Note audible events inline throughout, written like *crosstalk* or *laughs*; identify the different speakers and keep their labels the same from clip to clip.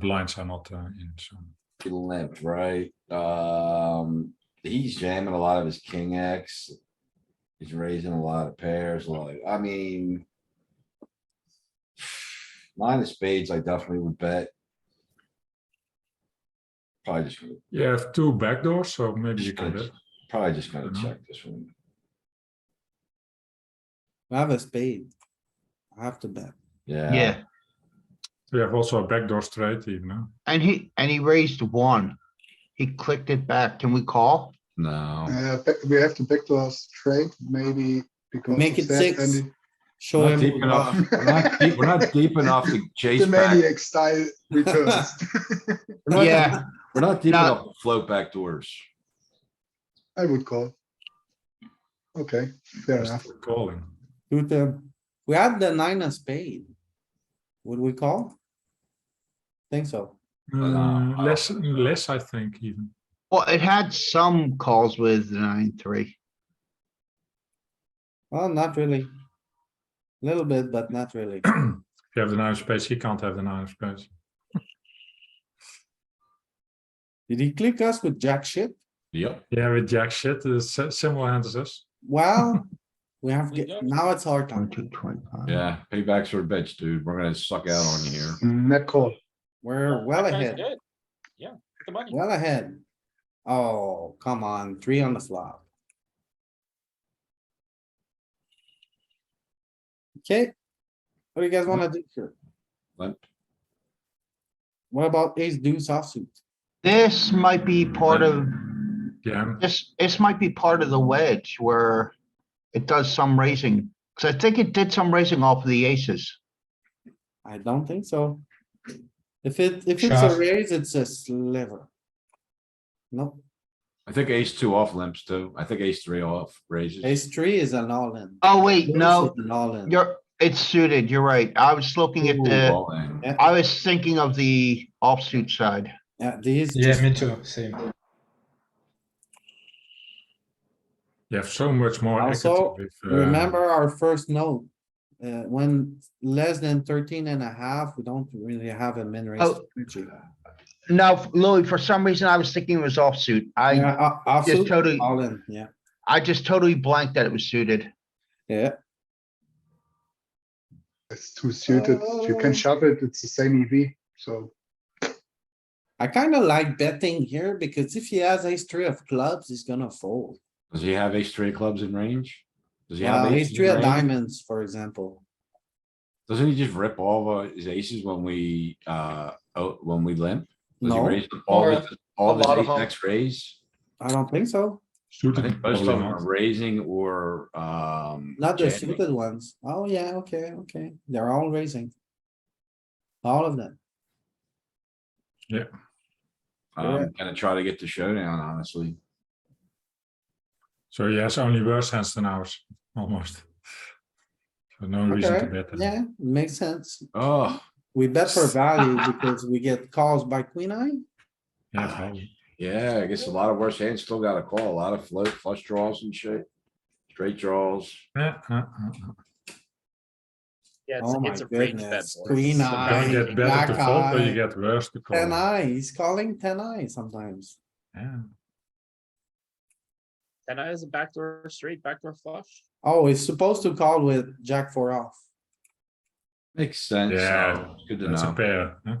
Speaker 1: blinds are not uh, in, so.
Speaker 2: limp, right? Um, he's jamming a lot of his king X. He's raising a lot of pairs, like, I mean. Nine of spades, I definitely would bet. Probably just, gonna-
Speaker 1: You have two backdoors, so maybe you can bet.
Speaker 2: probably just gonna
Speaker 1: Mhm.
Speaker 2: check this one.
Speaker 3: I have a spade. I have to bet.
Speaker 2: Yeah,
Speaker 4: Yeah,
Speaker 1: We have also a backdoor straight even, huh?
Speaker 4: and he, and he raised one. He clicked it back. Can we call?
Speaker 2: no.
Speaker 5: Uh, but we have to pick to straight, maybe because.
Speaker 3: Make
Speaker 5: of
Speaker 3: it
Speaker 5: that
Speaker 3: six.
Speaker 5: and
Speaker 3: Show
Speaker 2: Not
Speaker 3: him.
Speaker 2: deep enough, we're not deep- we're not deep enough
Speaker 5: *laughs*
Speaker 2: to
Speaker 5: The
Speaker 2: chase back, *laughs*
Speaker 5: maniac style returns.
Speaker 2: We're not-
Speaker 4: Yeah,
Speaker 2: we're not deep
Speaker 4: No.
Speaker 2: enough to float back doors.
Speaker 5: I would call. Okay, fair
Speaker 1: Just
Speaker 5: enough.
Speaker 1: Calling.
Speaker 3: Shoot him. We have the nine of spade. Would we call? Think so.
Speaker 2: no,
Speaker 1: Uh,
Speaker 2: I
Speaker 1: Less,
Speaker 2: don't
Speaker 1: less, I think even. *clears throat*
Speaker 4: well, it had some calls with nine, three.
Speaker 3: Well, not really. Little bit, but not really.
Speaker 1: If you have the nine of spades, he can't have the nine of spades.
Speaker 3: Did he click us with jack shit?
Speaker 2: Yep.
Speaker 1: Yeah, with jack shit, uh, si- similar hand as us.
Speaker 3: Well, we have, ge- now it's our time.
Speaker 4: 22, 25.
Speaker 2: Yeah, paybacks are a bitch, dude. We're gonna suck out on you here.
Speaker 5: Net call.
Speaker 3: We're well ahead,
Speaker 6: Yeah, the money.
Speaker 3: well ahead. Oh, come on, three on the flop. Okay. What do you guys wanna do here?
Speaker 2: Limp.
Speaker 3: What about ace deuce offsuit?
Speaker 4: This might be part of,
Speaker 1: Yeah,
Speaker 4: this, this might be part of the wedge where it does some raising. Cause I think it did some raising off of the aces.
Speaker 3: I don't think so. If it, if it's a raise, it's a sliver. Nope,
Speaker 2: I think ace two off limps too. I think ace three off raises.
Speaker 3: ace three is an all in.
Speaker 4: Oh, wait, no,
Speaker 3: An all in.
Speaker 4: you're, it's suited. You're right. I was looking at
Speaker 2: Ooh,
Speaker 4: the,
Speaker 2: all in.
Speaker 3: Yeah,
Speaker 4: I was thinking of the offsuit side.
Speaker 3: Yeah, these,
Speaker 6: Yeah,
Speaker 3: just-
Speaker 6: me too, same.
Speaker 1: you have so much more. equity
Speaker 3: Also,
Speaker 1: with, uh,
Speaker 3: remember our first note. Uh, when less than 13 and a half, we don't really have a min raise.
Speaker 4: Oh. No, Louis, for some reason I was thinking it was offsuit. I, just
Speaker 3: Offsuit,
Speaker 4: totally,
Speaker 3: all in, yeah,
Speaker 4: I just totally blanked that it was suited.
Speaker 3: yeah,
Speaker 5: It's too suited. You can
Speaker 2: Oh.
Speaker 5: shove it. It's the same EV, so.
Speaker 3: I kinda like betting here because if he has ace three of clubs, he's gonna fold.
Speaker 2: Does he have ace three of clubs in range? Does he
Speaker 3: Yeah,
Speaker 2: have?
Speaker 3: ace
Speaker 2: in
Speaker 3: three of
Speaker 2: range?
Speaker 3: diamonds, for example.
Speaker 2: Doesn't he just rip all of his aces when we, uh, oh, when we limp? Does he
Speaker 3: No.
Speaker 2: raise all of his, all of
Speaker 6: a lot
Speaker 2: his
Speaker 6: of
Speaker 2: ace
Speaker 6: them.
Speaker 2: X raise?
Speaker 3: I don't think so,
Speaker 2: I
Speaker 1: suited,
Speaker 2: think most of
Speaker 1: probably
Speaker 2: them are
Speaker 1: not.
Speaker 2: raising or, um.
Speaker 3: not the
Speaker 2: jamming.
Speaker 3: suited ones. Oh, yeah, okay, okay, they're all raising. All of them.
Speaker 2: I'm gonna try to get the showdown, honestly.
Speaker 1: So he has only worse hands than ours, almost. So no reason to
Speaker 3: Okay,
Speaker 1: bet. them.
Speaker 3: yeah, makes sense.
Speaker 2: Oh,
Speaker 3: We bet for
Speaker 4: *laughs*
Speaker 3: value because we get calls by queen eye.
Speaker 1: Yeah, probably.
Speaker 2: yeah, I guess a lot of worse hands still got a call, a lot of float flush draws and shit. Straight draws.
Speaker 1: Yeah, uh, uh, uh.
Speaker 6: Yeah,
Speaker 3: Oh my goodness, queen
Speaker 1: Don't
Speaker 3: eye,
Speaker 1: get better
Speaker 3: black
Speaker 1: to fold, but you
Speaker 3: eye,
Speaker 1: get worse to call.
Speaker 3: ten eye, he's calling ten eye sometimes.
Speaker 1: Yeah.
Speaker 6: And I has a backdoor straight, backdoor flush.
Speaker 3: Oh, he's supposed to call with jack four off.
Speaker 2: Makes sense.
Speaker 1: Yeah,
Speaker 2: Oh, Good to
Speaker 1: That's a
Speaker 2: know.
Speaker 1: pair, huh?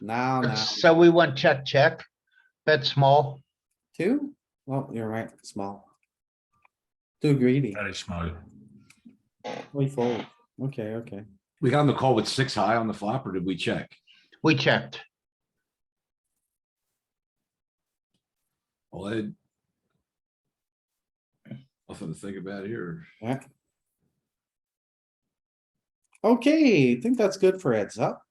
Speaker 3: Now, now,
Speaker 4: So we went check, check, bet small.
Speaker 3: two? Well, you're right, small. Too greedy,
Speaker 1: very small.
Speaker 3: we fold. Okay, okay.
Speaker 2: We got on the call with six high on the flop or did we check?
Speaker 4: We checked.
Speaker 2: Well, Ed. Nothing to think about here.
Speaker 3: Okay, I think that's good for heads up.